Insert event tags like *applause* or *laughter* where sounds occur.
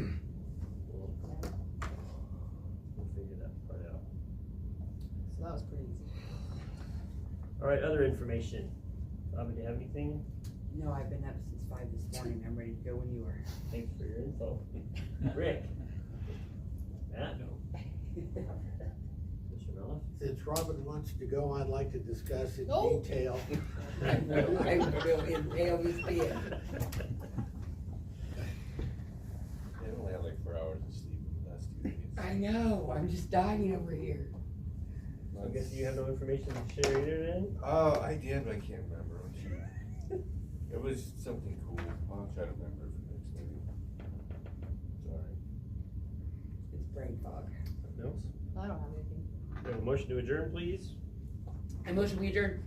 We'll we'll figure that part out. So that was pretty easy. All right, other information. Bobby, do you have anything? No, I've been up since five this morning, I'm ready to go when you *laughs* are. Thanks for your info. Rick? Matt? Mr. Mello? Since Robin wants to go, I'd like to discuss in No. detail. *laughs* I will, I will impale his beard. *laughs* I only had like four hours of sleep in the last two days. I know, I'm just dying over here. I guess you have no information to share either then? Oh, I did, but I can't remember. what you- It was something cool. I'll try to remember for next meeting. Sorry. It's brain fog. No? I don't have anything. We have a motion to adjourn, please? I motion we adjourn.